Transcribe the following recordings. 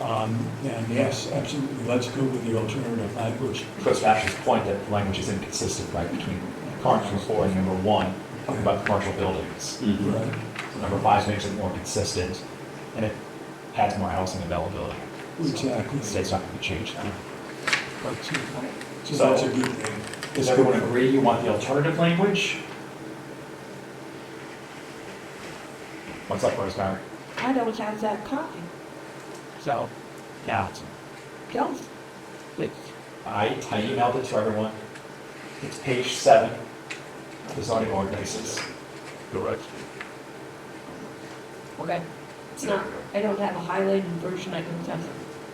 Um, And yes, absolutely, let's go with the alternative language. Chris Ash's point that the language is inconsistent, right, between current number four and number one, talking about commercial buildings. Right. Number five makes it more consistent, and it adds more housing availability. Exactly. So It's not gonna be changed. But, uh, So that's a good thing. Does everyone agree you want the alternative language? What's up, Rosemary? I don't have that copy. So, yeah. Don't. I, I emailed it to everyone. It's page seven, of the zoning ordinances. Correct. Okay. So I don't have a highlighted version I can send.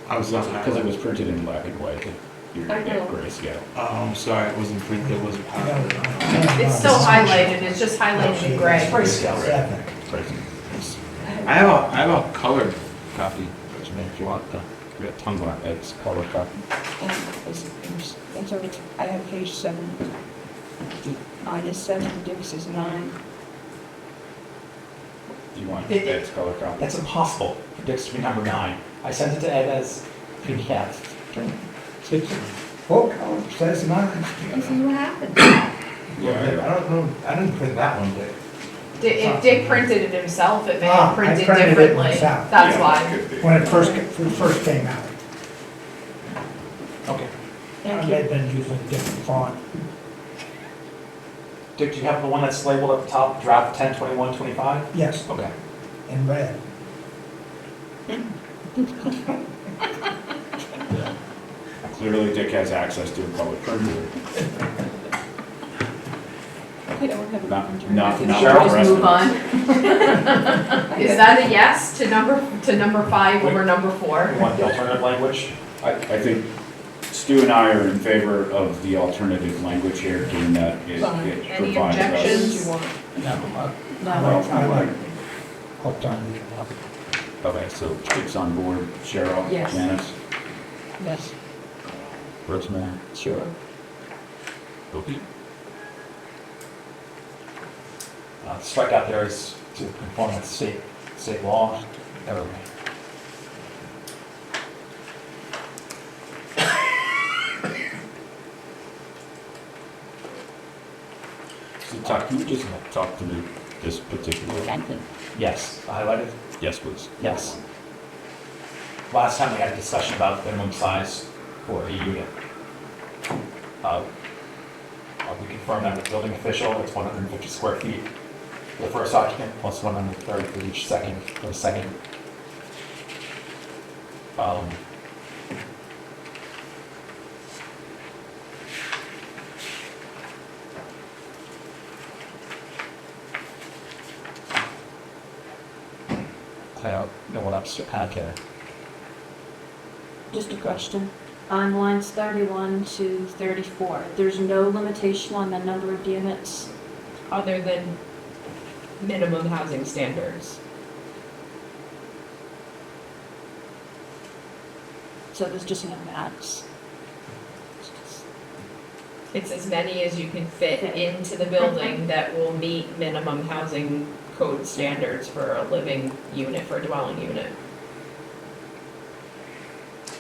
I was not Because it was printed in black and white, you're I gonna know. get grayscale. Oh, I'm sorry, it wasn't printed, it wasn't highlighted. It's still highlighted, it's just highlighted in gray. Grayscale, right? I have a, I have a colored copy, if you want the, we got tons of it, it's colored copy. And it's- it's- That's all right. I have page seven. Minus seven gives us nine. Do you want It- that's color copy? That's impossible for Dick's to be number nine. I sent it to Ed as PDF. Four colors, that's mine. This is what happened. Yeah, I don't know, I didn't print that one, Dick. Di- If Dick printed it himself, it may Ah, I have printed printed it differently. myself. That's Yeah, why. could be. When it first, when it first came out. Okay. Thank They've you. been using different font. Dick, do you have the one that's labeled at the top, draft ten twenty-one twenty-five? Yes, Okay. in red. clearly Dick has access to a public printer, I don't have a not, version. not, Cheryl, not the Just rest of move us. on. Is that a yes to number, to number five over number four? You want the alternative language? I, I think Stu and I are in favor of the alternative language here, given that it Fine. it Any provides us. objections? You want- No, Well, I like, hooked on the, Okay, so Dick's on board, Cheryl? Yes. Janice? Yes. Rosemary? Sure. Uh, the strikeout there is to conform with state, state law, everything. So Todd, can you just talk to me this particular? Yes, highlighted, Yes, please. yes. Last time we had a discussion about minimum size for a unit. Uh, uh, We confirmed that the building official, it's 150 square feet for the first occupant, plus 130 for each second, for the second. Um, I don't know what else to add there. Just a question. On lines 31 to 34, there's no limitation on the number of units. Other than minimum housing standards. So there's just no max. It's as many as you can fit into the building that will meet minimum housing code standards for a living unit, for a dwelling unit.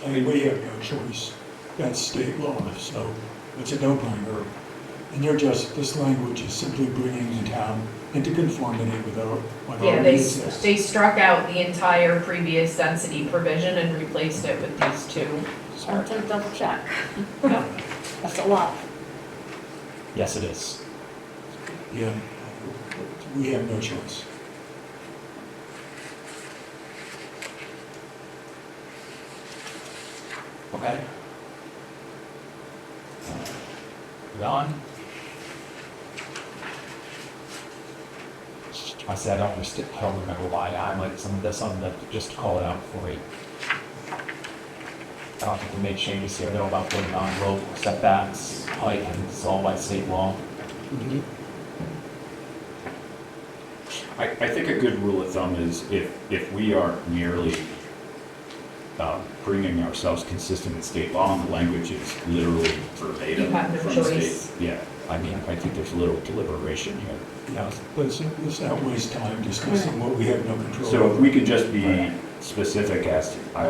I mean, we have no choice. That's state law, so it's a no-brainer. And they're just, this language is simply bringing the town into conformity with our, what Yeah, already they, exists. they struck out the entire previous density provision and replaced it with these two. Just want to double check. That's a lot. Yes, it is. Yeah, we have no choice. Okay. Ron? I said, I don't understand, I don't remember why I might, some of this on the, just to call it out for you. I don't think we made changes here, though, about putting on road setbacks, height, and it's all by state law. I, I think a good rule of thumb is if, if we are merely uh, bringing ourselves consistent with state law and the language is literally verbatim You have no from state- choice. Yeah, I mean, I think there's little deliberation here. Yeah, let's, let's not waste time discussing what we have no control over. So if we could just be specific as to, I